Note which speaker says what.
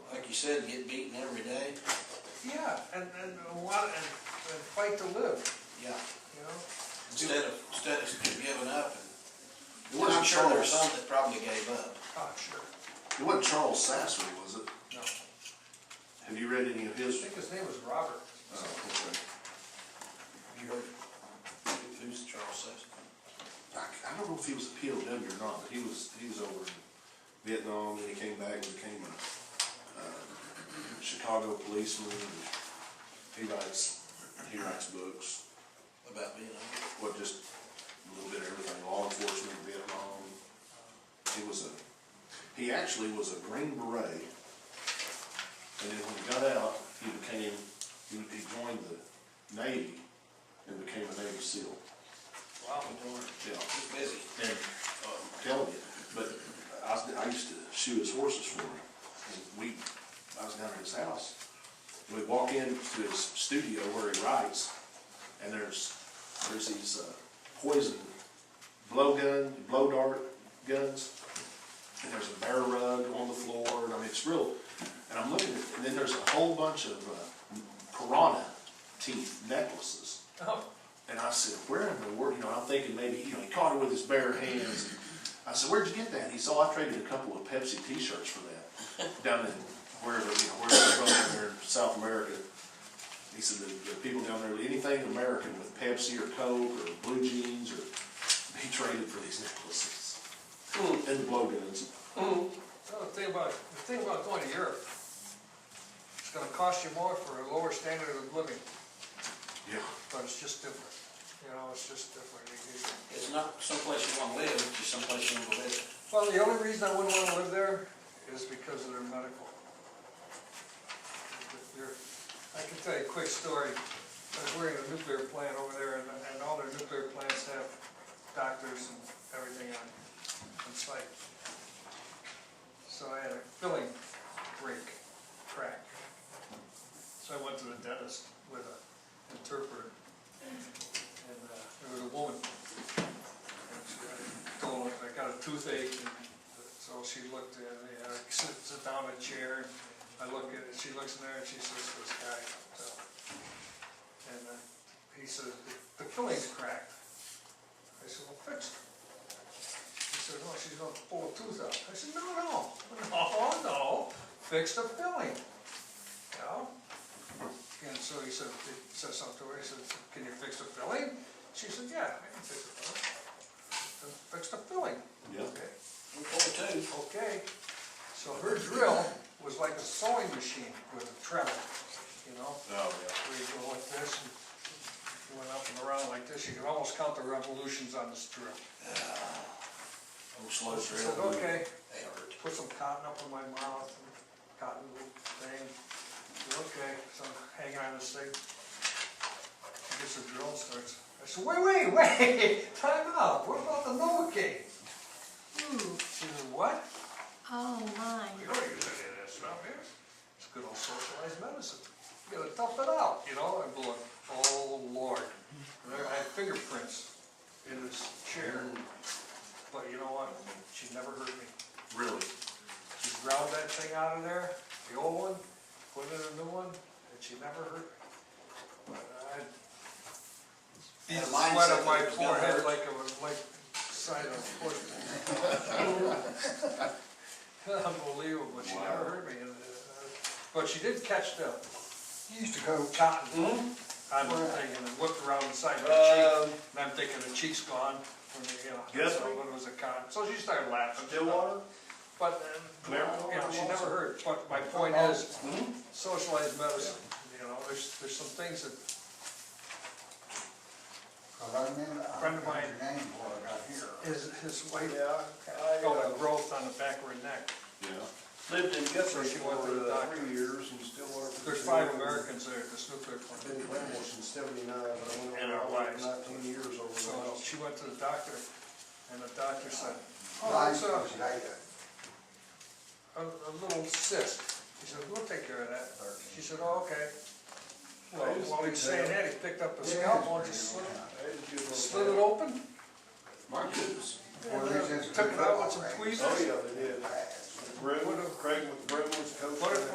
Speaker 1: you said, get beaten every day.
Speaker 2: Yeah, and, and a lot, and, and fight to live,
Speaker 1: Yeah.
Speaker 2: you know?
Speaker 1: Instead of, instead of just giving up and.
Speaker 3: It wasn't
Speaker 1: I'm sure there were
Speaker 3: Charles,
Speaker 1: some that probably gave up.
Speaker 2: Oh, sure.
Speaker 3: it wasn't Charles Sasser, was it?
Speaker 2: No, I
Speaker 3: Have you read any of his?
Speaker 2: think his name was Robert.
Speaker 3: Oh, okay.
Speaker 1: You heard, who- who's Charles Sessions?
Speaker 3: I, I don't know if he was a POW or not, but he was, he was over in Vietnam, and he came back and became a, uh, Chicago policeman, and he writes, he writes books,
Speaker 1: About being, a-
Speaker 3: what, just a little bit of everything, law enforcement, Vietnam. He was a, he actually was a Green Beret, and then when he got out, he became, he, he joined the Navy and became a Navy SEAL,
Speaker 2: Wow.
Speaker 3: yeah.
Speaker 1: he's busy.
Speaker 3: And I'm telling uh, you, but I, was- I used to shoe his horses for him. And we, I was down at his house. We walk into his studio where he writes, and there's, there's these uh, poison blowgun, blow dart guns. And there's a bear rug on the floor, and I mean, it's real. And I'm looking, at- and then there's a whole bunch of uh, piranha teeth necklaces.
Speaker 2: Oh,
Speaker 3: And I said, where in the world, you know, I'm thinking maybe, you know, he caught it with his bare hands. I said, where'd you get that? He said, oh, I traded a couple of Pepsi t-shirts for that down in wherever, you know, wherever they're from down there in South America. He said, the, the people down there, anything American with Pepsi or Coke or blue jeans or, he traded for these necklaces. And the blowguns.
Speaker 2: well, the thing about, the thing about going to Europe, it's gonna cost you more for a lower standard of living,
Speaker 3: Yeah.
Speaker 2: but it's just different. You know, it's just different. You- you-
Speaker 1: It's not someplace you wanna live, it's just someplace you wanna live.
Speaker 2: Well, the only reason I wouldn't wanna live there is because of their medical. They're- I can tell you a quick story. I was working at a nuclear plant over there, and, and all their nuclear plants have doctors and everything on, on site. So I had a filling break, crack. So I went to the dentist with an interpreter. And, uh, there was a woman told her I got a toothache, and so she looked at me, and I sit, sit down in a chair, and I look at it, she looks in there, and she says, this guy, so. And uh, he says, the filling's cracked. I said, well, fix it. He said, no, she's gonna pull a tooth out. I said, no, no, no, no, fix the filling, you know? And so he said, he said something to her, he said, can you fix the filling? She said, yeah, I can fix the filling fix the filling.
Speaker 3: Yeah.
Speaker 2: Okay,
Speaker 1: Four two.
Speaker 2: Okay, so her drill was like a sewing machine with a treble, you know?
Speaker 3: Oh,
Speaker 2: Where you go like this, and you went up and around like this, you could almost count the revolutions on this drill.
Speaker 1: Old slow
Speaker 2: I said,
Speaker 1: drill.
Speaker 2: okay,
Speaker 1: They hurt.
Speaker 2: put some cotton up in my mouth, and cotton thing, Said, okay, so I'm hanging on this thing. She Gets the drill and starts, I said, wait, wait, wait, time out, what about the Novocaine?
Speaker 4: Ooh,
Speaker 2: She said, what?
Speaker 4: oh my.
Speaker 2: We don't use any of this around here. It's good old socialized medicine. You gotta tough it out, you know, I'm going, oh Lord. And there, I had fingerprints in this chair. But you know what? She never hurt me.
Speaker 3: Really?
Speaker 2: She ground that thing out of there, the old one, put in a new one, and she never hurt me. But I
Speaker 1: Yeah,
Speaker 2: beat the
Speaker 1: mine
Speaker 2: sweat
Speaker 1: said
Speaker 2: on my
Speaker 1: it was gonna
Speaker 2: forehead
Speaker 1: hurt.
Speaker 2: like it was like side of a foot. Unbelievable, but she never hurt me. and, uh, But she did catch the
Speaker 5: He used to go,
Speaker 2: cotton on the thing and it whipped around the side of
Speaker 3: Uh,
Speaker 6: Um,
Speaker 2: her cheek. And I'm thinking the cheek's gone from the, you know,
Speaker 3: Guess
Speaker 2: so
Speaker 3: what?
Speaker 2: when it was a cotton. So she started laughing. But, um,
Speaker 3: Clearwater?
Speaker 2: you know, she never heard, but my point is, socialized medicine, you know, there's, there's some things that,
Speaker 5: because I remember, I
Speaker 2: Friend of
Speaker 5: don't know
Speaker 2: mine.
Speaker 5: his name before I got here.
Speaker 2: his, his wife
Speaker 6: Yeah, I
Speaker 2: got a
Speaker 6: uh,
Speaker 2: growth on the back of her neck.
Speaker 3: Yeah.
Speaker 6: lived in Guthrie
Speaker 2: She went
Speaker 6: for
Speaker 2: to the
Speaker 6: uh,
Speaker 2: doctor.
Speaker 6: three years and still are. for
Speaker 2: There's
Speaker 6: three
Speaker 2: five
Speaker 6: years.
Speaker 2: Americans there at this nuclear plant.
Speaker 6: Been in Ramos since seventy-nine, but I went
Speaker 2: And our
Speaker 6: over there
Speaker 2: wives.
Speaker 6: nineteen years over
Speaker 2: So
Speaker 6: there.
Speaker 2: she went to the doctor and the doctor said, oh,
Speaker 5: Life
Speaker 2: it's a,
Speaker 5: was like that.
Speaker 2: a, a little cyst. He said, we'll take care of that. She said, oh, okay. Well, while he was saying that, he picked up a scalpel and just slit,
Speaker 6: I had to do a little
Speaker 2: slit it open.
Speaker 3: My goodness.
Speaker 5: Well,
Speaker 2: and,
Speaker 5: these
Speaker 2: uh,
Speaker 5: is
Speaker 2: Took it out with some
Speaker 5: football games.
Speaker 2: tweezers.
Speaker 6: Oh, yeah, they did.
Speaker 5: Pass.
Speaker 6: Brim, Craig with Brimley's coach.
Speaker 2: What if-